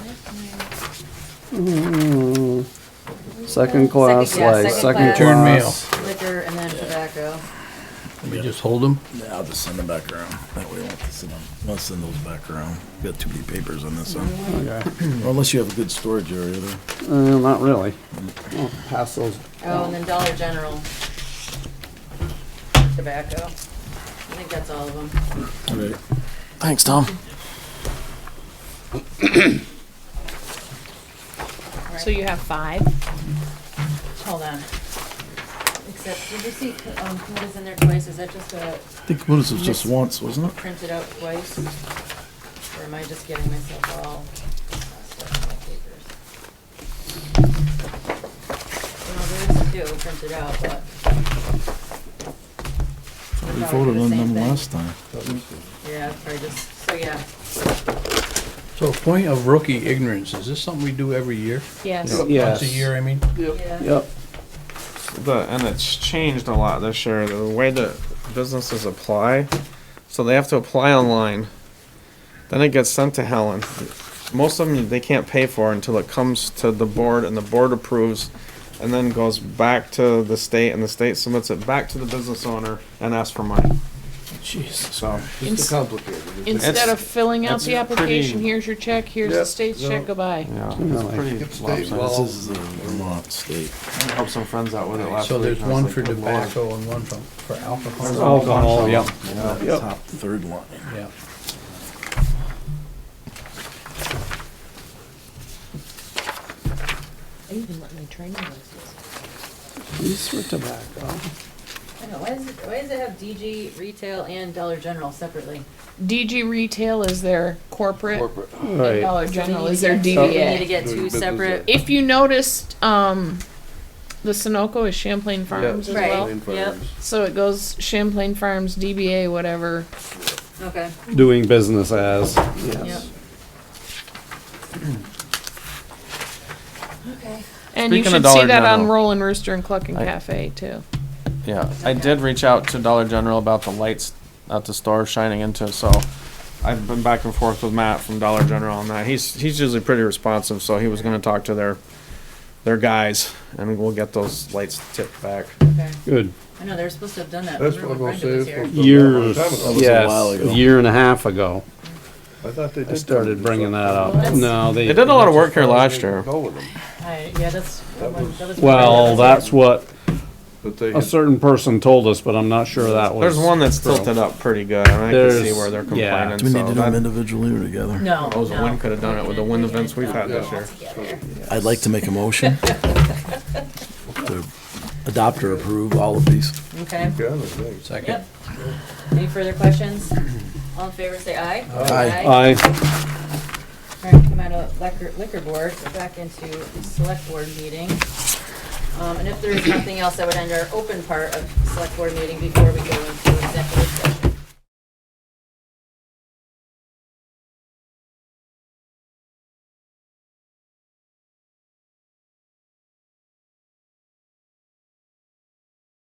Mm, Second class Second- yeah, slice, second second class. Return mail. class. Liquor and then tobacco. We just hold them? Yeah, I'll just send them back around. That way I won't have to send them, I'll send those back around. Got too many papers on this one. Okay. Unless you have a good storage area there. Uh, not really. I'll Pass those. Oh, and then Dollar General. Tobacco. I think that's all of them. All right. Thanks, Tom. So you have five? Hold on. Except, did you see, um, Kuma's in there twice? Is that just a I think what is it, just once, wasn't it? printed out twice? Or am I just getting myself all stuck in my papers? No, there is two printed out, but. We They're probably voted the on same them thing. last time. Yeah, it's probably just, so yeah. So point of rookie ignorance, is this something we do every year? Yes. Yes. Once a year, I mean? Yeah. Yep. the and it's changed a lot this year. The way that businesses apply, so they have to apply online. Then it gets sent to Helen. Most of them they can't pay for until it comes to the board and the board approves, and then goes back to the state and the state submits it back to the business owner and asks for money. Jesus. So Ins- Complicated. Instead of filling out that's the application, pretty- here's your check, here's the state's check, goodbye. yeah, Really? it's pretty This lopsided. is the Vermont state. I helped some friends out with it last So week. there's and I was one like, for "Good Lord." tobacco and one for, for alcohol. Alcohol, yep. Yeah, the Yep. top third line. Yeah. I even let my train license. These for tobacco. I don't know, why does, it- why does it have DG, retail, and Dollar General separately? DG Retail is their corporate, and Right. Dollar General is there their We need to DBA. get two separate. If you noticed, um, the Sunoco is Champlain Farms as well. Right, yep, So it goes Champlain Farms, DBA, whatever. okay, Doing business as. yep. Yes. Okay. And you Speaking of should see Dollar that on General. Rollin' Rooster and Cluckin' Cafe too. Yeah, I did reach out to Dollar General about the lights at the store shining into, so I've been back and forth with Matt from Dollar General on that. He's, he's usually pretty responsive, so he was gonna talk to their, their guys, and we'll get those lights tipped back. Okay. Good. I know, they were supposed to have done that. That's Remember what I'm when gonna Brenda was say, here? Years, it's That was a yes, while ago. a year and a half ago. I thought they did. I started bringing that up. That's- No, they. They did a lot of work here last year. Go with them, I- Yeah, that's. that was- that was- Well, that's what but they, a had- certain person told us, but I'm not sure that was. There's one that's tilted up pretty good, and I can see There's- where they're yeah. complaining, Do we need so to do them that, individually or together? No, those wind no. could've done it with the wind events we've had this year. Together. I'd like to make a motion to adopt or approve all of these. Okay, yeah, I think. Second. yep. Any further questions? All in favor, say aye. Aye. I, All right, come out of liquor, liquor board, go back into the select board meeting. Um, and if there is nothing else, I would end our open part of select board meeting before we go into executive session.